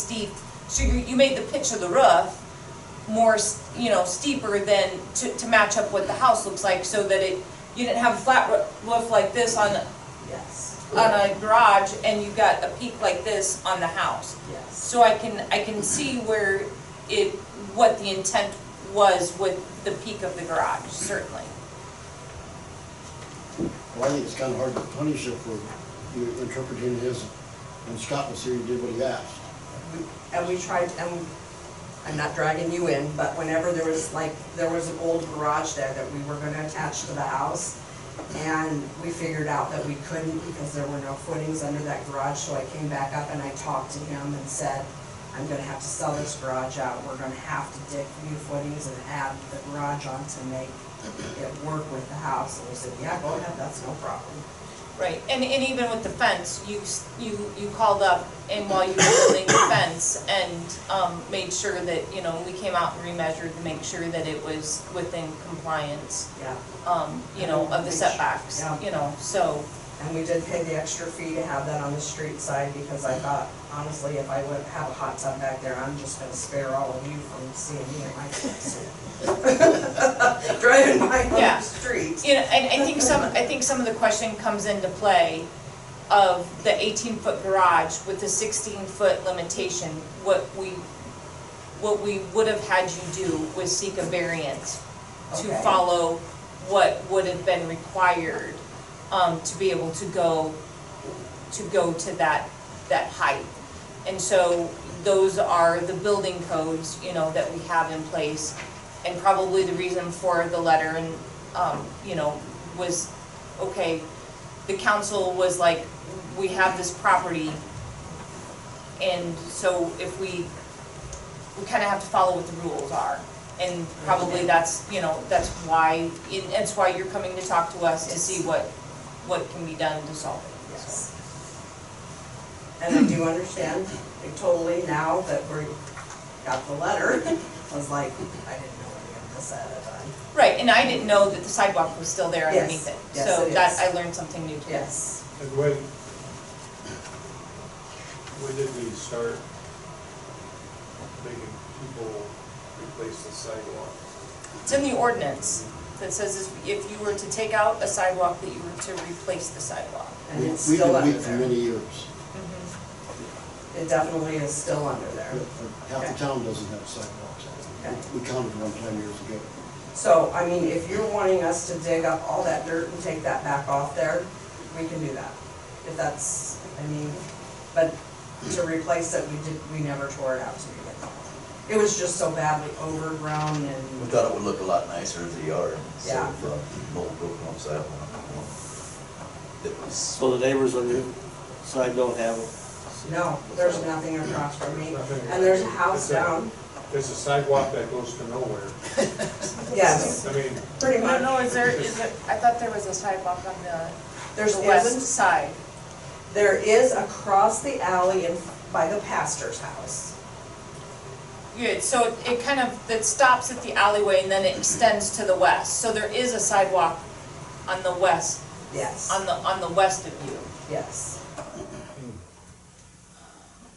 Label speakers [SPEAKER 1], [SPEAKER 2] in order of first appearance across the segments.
[SPEAKER 1] steep, so you, you made the pitch of the roof more, s- you know, steeper than, to, to match up what the house looks like, so that it, you didn't have a flat roo- roof like this on,
[SPEAKER 2] Yes,
[SPEAKER 1] on a garage, and you got a peak like this on the house.
[SPEAKER 2] yes.
[SPEAKER 1] So I can, I can see where it, what the intent was with the peak of the garage, certainly.
[SPEAKER 3] Well, I think it's kind of hard to punish it for you interpreting his, when Scott was here, he did what he asked.
[SPEAKER 2] We- And we tried, and I'm not dragging you in, but whenever there was like, there was an old garage there that we were gonna attach to the house. And we figured out that we couldn't because there were no footings under that garage, so I came back up and I talked to him and said, I'm gonna have to sell this garage out, we're gonna have to dig new footings and add the garage on to make it work with the house. And he said, yeah, go ahead, that's no problem.
[SPEAKER 1] Right, and, and even with the fence, you, s- you, you called up and while you were building the fence and, um, made sure that, you know, we came out and remeasured to make sure that it was within compliance,
[SPEAKER 2] Yeah.
[SPEAKER 1] um, you know, of the setbacks,
[SPEAKER 2] Yeah.
[SPEAKER 1] you know, so,
[SPEAKER 2] And we did pay the extra fee to have that on the street side because I thought, honestly, if I would have a hot tub back there, I'm just gonna spare all of you from seeing me in my swimsuit. Driving my
[SPEAKER 1] Yeah.
[SPEAKER 2] own street.
[SPEAKER 1] you know, and I think some, I think some of the question comes into play of the eighteen-foot garage with the sixteen-foot limitation, what we, what we would have had you do was seek a variance to
[SPEAKER 2] Okay.
[SPEAKER 1] follow what would have been required, um, to be able to go, to go to that, that height. And so those are the building codes, you know, that we have in place. And probably the reason for the letter and, um, you know, was, okay, the council was like, we have this property. And so if we, we kind of have to follow what the rules are. And probably that's, you know, that's why, it- that's why you're coming to talk to us to
[SPEAKER 2] Yes.
[SPEAKER 1] see what, what can be done to solve it. so.
[SPEAKER 2] Yes. And I do understand totally now that we got the letter, I was like, I didn't know any of this at the time.
[SPEAKER 1] Right, and I didn't know that the sidewalk was still there
[SPEAKER 2] Yes,
[SPEAKER 1] underneath it.
[SPEAKER 2] yes,
[SPEAKER 1] So
[SPEAKER 2] it
[SPEAKER 1] that,
[SPEAKER 2] is.
[SPEAKER 1] I learned something new today.
[SPEAKER 2] Yes.
[SPEAKER 4] And when, when did we start making people replace the sidewalk?
[SPEAKER 1] It's in the ordinance that says if- if you were to take out a sidewalk, that you were to replace the sidewalk.
[SPEAKER 2] And it's
[SPEAKER 3] We-
[SPEAKER 2] still under
[SPEAKER 3] We've been weak for
[SPEAKER 2] there.
[SPEAKER 3] many years.
[SPEAKER 2] Mm-hmm. It definitely is still under there.
[SPEAKER 3] Half
[SPEAKER 2] Okay.
[SPEAKER 3] the town doesn't have sidewalks.
[SPEAKER 2] Okay.
[SPEAKER 3] We counted one time years ago.
[SPEAKER 2] So, I mean, if you're wanting us to dig up all that dirt and take that back off there, we can do that. If that's, I mean, but to replace it, we did, we never tore it out to begin with. It was just so badly overgrown
[SPEAKER 5] We
[SPEAKER 2] and,
[SPEAKER 5] thought it would look a lot nicer as a yard, instead
[SPEAKER 2] Yeah.
[SPEAKER 5] of uh, mold broken on sidewalk. It was,
[SPEAKER 6] So the neighbors on your side don't have them?
[SPEAKER 2] no, there's nothing across from me.
[SPEAKER 4] Nothing.
[SPEAKER 2] And there's a house
[SPEAKER 4] It's a-
[SPEAKER 2] down,
[SPEAKER 4] There's a sidewalk that goes to nowhere.
[SPEAKER 2] yes,
[SPEAKER 4] I mean,
[SPEAKER 2] pretty much.
[SPEAKER 1] is there, is it, I thought there was a sidewalk on the,
[SPEAKER 2] There's isn't-
[SPEAKER 1] side.
[SPEAKER 2] There is across the alley and by the pastor's house.
[SPEAKER 1] Yeah, so it- it kind of, that stops at the alleyway and then it extends to the west. So there is a sidewalk on the west,
[SPEAKER 2] Yes,
[SPEAKER 1] on the, on the west of you.
[SPEAKER 2] yes.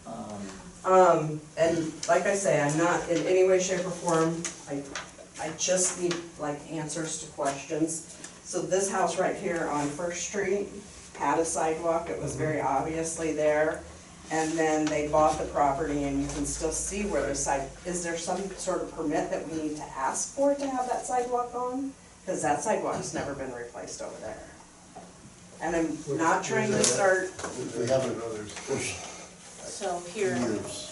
[SPEAKER 5] um,
[SPEAKER 2] Um, and like I say, I'm not in any way, shape, or form, I, I just need like answers to questions. So this house right here on First Street had a sidewalk, it was
[SPEAKER 3] Mm-hmm.
[SPEAKER 2] very obviously there. And then they bought the property and you can still see where the side, is there some sort of permit that we need to ask for to have that sidewalk on? Cause that sidewalk's never been replaced over there. And I'm not trying to start,
[SPEAKER 3] We- We haven't
[SPEAKER 4] others.
[SPEAKER 3] pushed
[SPEAKER 1] So here,
[SPEAKER 3] years.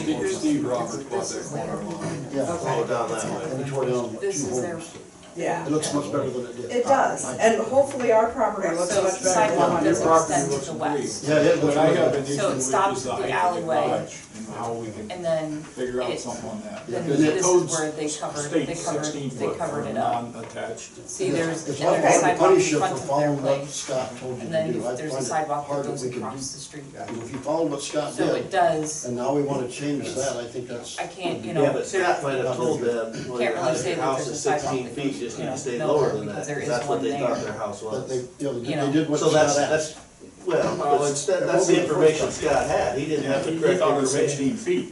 [SPEAKER 7] Steve Steve Roberts bought that corner line.
[SPEAKER 3] Yeah.
[SPEAKER 5] Oh, down that way.
[SPEAKER 3] And we tore down what,
[SPEAKER 1] This
[SPEAKER 3] two
[SPEAKER 1] is their-
[SPEAKER 3] homes.
[SPEAKER 2] yeah.
[SPEAKER 3] It looks much better than it did.
[SPEAKER 2] It does, and hopefully our property looks
[SPEAKER 1] So
[SPEAKER 2] much better than
[SPEAKER 1] sidewalk
[SPEAKER 2] one
[SPEAKER 4] Your
[SPEAKER 1] does
[SPEAKER 2] is.
[SPEAKER 4] property
[SPEAKER 1] extend
[SPEAKER 4] looks
[SPEAKER 1] to the west.
[SPEAKER 4] great.
[SPEAKER 3] Yeah, it looks
[SPEAKER 7] But I have an
[SPEAKER 3] better.
[SPEAKER 7] issue
[SPEAKER 1] So it
[SPEAKER 7] with is the
[SPEAKER 1] stops at the
[SPEAKER 7] height of the
[SPEAKER 1] alleyway.
[SPEAKER 7] garage and how we can
[SPEAKER 1] And then
[SPEAKER 7] figure out
[SPEAKER 1] it-
[SPEAKER 7] something on that.
[SPEAKER 1] then
[SPEAKER 3] Yeah,
[SPEAKER 1] this
[SPEAKER 3] and it
[SPEAKER 1] is
[SPEAKER 7] codes
[SPEAKER 1] where they covered, they
[SPEAKER 7] State
[SPEAKER 1] covered,
[SPEAKER 7] sixteen
[SPEAKER 1] they
[SPEAKER 7] foot
[SPEAKER 1] covered
[SPEAKER 7] for
[SPEAKER 1] it up.
[SPEAKER 7] non-attached.
[SPEAKER 1] See, there's, and
[SPEAKER 3] It's
[SPEAKER 1] there's
[SPEAKER 3] hard
[SPEAKER 1] a
[SPEAKER 3] to
[SPEAKER 1] sidewalk in
[SPEAKER 3] punish you for
[SPEAKER 1] front of their
[SPEAKER 3] following what
[SPEAKER 1] place.
[SPEAKER 3] Scott told you
[SPEAKER 1] And
[SPEAKER 3] to
[SPEAKER 1] then
[SPEAKER 3] do. I
[SPEAKER 1] there's a
[SPEAKER 3] find it
[SPEAKER 1] sidewalk that
[SPEAKER 3] hard that
[SPEAKER 1] goes
[SPEAKER 3] we can do.
[SPEAKER 1] across the street.
[SPEAKER 3] If you follow what Scott
[SPEAKER 1] So it
[SPEAKER 3] did,
[SPEAKER 1] does,
[SPEAKER 3] and now we want to change that, I think that's.
[SPEAKER 1] I can't, you
[SPEAKER 8] Yeah,
[SPEAKER 1] know,
[SPEAKER 8] but
[SPEAKER 1] so
[SPEAKER 8] Scott might have told them, well,
[SPEAKER 1] Can't
[SPEAKER 8] your
[SPEAKER 1] really say that
[SPEAKER 8] house
[SPEAKER 1] there's
[SPEAKER 8] is
[SPEAKER 1] a sidewalk
[SPEAKER 8] sixteen
[SPEAKER 1] that
[SPEAKER 8] feet,
[SPEAKER 1] goes,
[SPEAKER 8] just
[SPEAKER 1] you
[SPEAKER 8] need
[SPEAKER 1] know,
[SPEAKER 8] to stay
[SPEAKER 1] nowhere
[SPEAKER 8] lower than that,
[SPEAKER 1] because there
[SPEAKER 8] 'cause
[SPEAKER 1] is
[SPEAKER 8] that's what
[SPEAKER 1] one
[SPEAKER 8] they
[SPEAKER 1] there.
[SPEAKER 8] thought their house
[SPEAKER 3] But
[SPEAKER 8] was.
[SPEAKER 3] they, you know,
[SPEAKER 1] You
[SPEAKER 3] they
[SPEAKER 1] know.
[SPEAKER 3] did what
[SPEAKER 8] So
[SPEAKER 3] Scott
[SPEAKER 8] that's,
[SPEAKER 3] asked.
[SPEAKER 8] that's,
[SPEAKER 6] Well,
[SPEAKER 7] Well, it's-
[SPEAKER 6] that-
[SPEAKER 7] it
[SPEAKER 6] that's
[SPEAKER 7] won't be
[SPEAKER 6] the information
[SPEAKER 7] the first
[SPEAKER 6] Scott had, he didn't have the correct information.
[SPEAKER 7] feet.